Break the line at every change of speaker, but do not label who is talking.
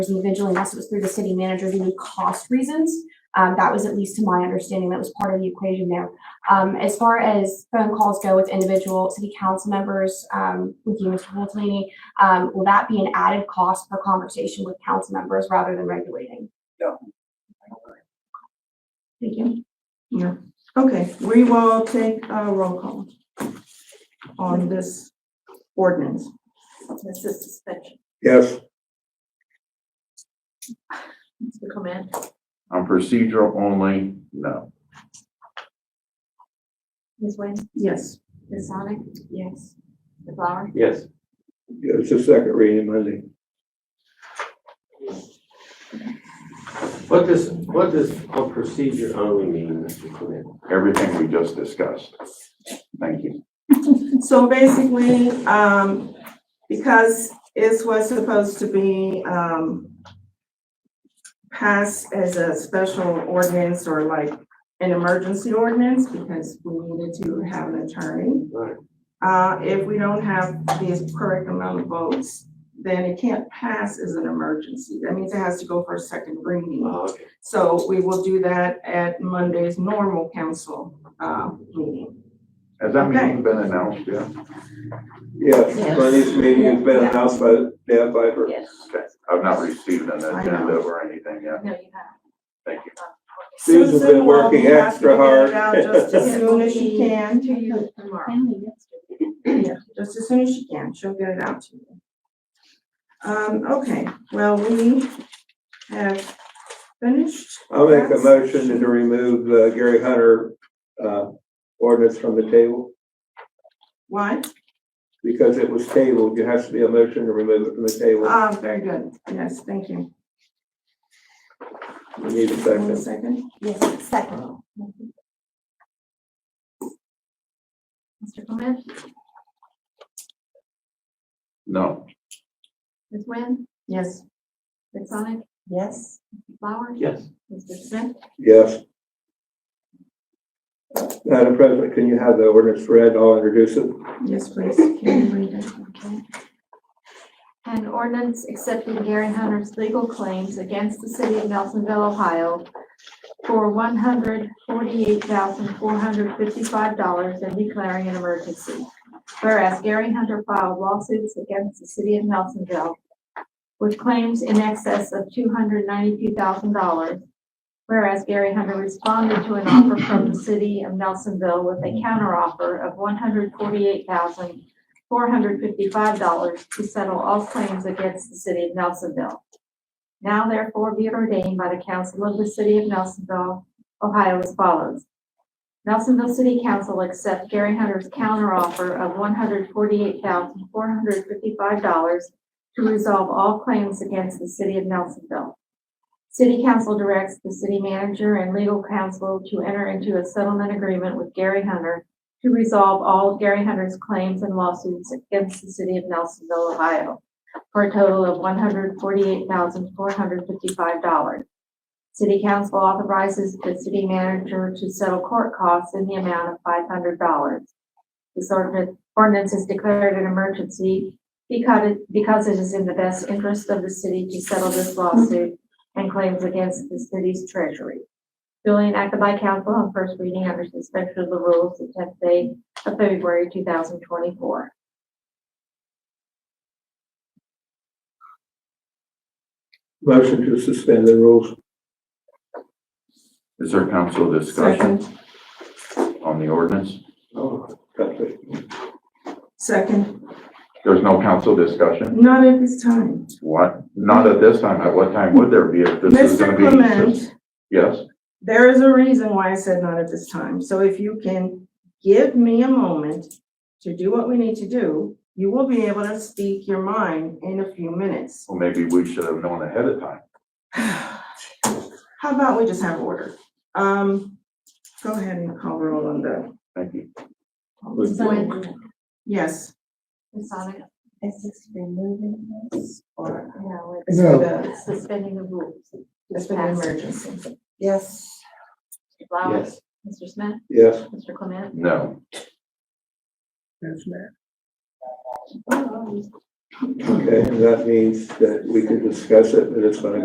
individually, unless it was through the city manager due to cost reasons. Um, that was at least to my understanding, that was part of the equation there. Um, as far as phone calls go with individual city council members, um, with you, Mr. Hultany, um, will that be an added cost per conversation with council members rather than regulating?
No.
Thank you.
Okay, we will take a roll call on this ordinance.
Mrs. Suspension.
Yes.
Mr. Coman.
On procedural only, no.
Ms. Wynn.
Yes.
Ms. Sonic. Yes. Mr. Flower.
Yes.
Yeah, it's a second reading, Monday.
What does, what does a procedure only mean, Mr. Clement?
Everything we just discussed. Thank you.
So basically, um, because this was supposed to be, um, passed as a special ordinance or like an emergency ordinance, because we needed to have an attorney.
Right.
Uh, if we don't have the correct amount of votes, then it can't pass as an emergency. That means it has to go for a second reading.
Oh, okay.
So we will do that at Monday's normal council, uh, meeting.
Has that
Okay.
meeting been announced yet?
Yes,
Yes.
Monday's meeting has been
Yeah.
announced by Dan Piper.
Yes.
Okay. I've not received an
I
agenda
know.
or anything yet.
No, you have.
Thank you.
Susan's been
Susan will
working
have to
extra
get it
hard.
out Just as soon as she can,
To you tomorrow.
yeah, just as soon as she can, she'll get it out to you. Um, okay, well, we have finished.
I'll make a motion to remove uh, Gary Hunter, uh, ordinance from the table.
What?
Because it was tabled, there has to be a motion to remove it from the table.
Ah, very good, yes, thank you.
We need a
One
second.
second.
Yes, second. Mr. Coman.
No.
Ms. Wynn.
Yes,
Ms. Sonic. Yes. Mr. Flower.
Yes.
Mr. Smith.
Yes. Madam President, can you have the ordinance read? I'll introduce it.
yes, please, can you read it?
Okay. An ordinance accepting Gary Hunter's legal claims against the city of Nelsonville, Ohio for one hundred forty-eight thousand four hundred fifty-five dollars and declaring an emergency. Whereas Gary Hunter filed lawsuits against the city of Nelsonville with claims in excess of two hundred ninety-two thousand dollars. Whereas Gary Hunter responded to an offer from the city of Nelsonville with a counteroffer of one hundred forty-eight thousand dollars four hundred fifty-five dollars to settle all claims against the city of Nelsonville. Now therefore be it ordained by the council of the city of Nelsonville, Ohio as follows. Nelsonville City Council accept Gary Hunter's counteroffer of one hundred forty-eight thousand four hundred fifty-five dollars to resolve all claims against the city of Nelsonville. City Council directs the city manager and legal counsel to enter into a settlement agreement with Gary Hunter to resolve all of Gary Hunter's claims and lawsuits against the city of Nelsonville, Ohio, for a total of one hundred forty-eight thousand, four hundred fifty-five dollars. City council authorizes the city manager to settle court costs in the amount of five hundred dollars. This ordinance, ordinance is declared an emergency because, it- because it is in the best interest of the city to settle this lawsuit and claims against the city's treasury. Duly enacted by council on first reading under suspension of the rules the tenth day of February two thousand twenty-four.
Motion to suspend the rules.
Is there council discussion
Second,
on the ordinance?
Oh, that's it.
second,
There's no council discussion?
not at this time.
What? Not at this time. At what time would there be if this is
Mr.
gonna be?
Clement.
Yes.
There is a reason why I said not at this time, so if you can give me a moment to do what we need to do, you will be able to speak your mind in a few minutes.
Well, maybe we should have known ahead of time.
How about we just have order? Um, go ahead and call roll on the,
Thank you.
Ms. Sonic?
yes.
Ms. Sonic?
Is this removing this or?
No,
Is it the,
it's suspending the rules. Mr.
it's for the emergency? Yes.
Flowers? Mr. Smith?
Yes.
Mr. Clement?
No.
Okay, and that means that we can discuss it, but it's gonna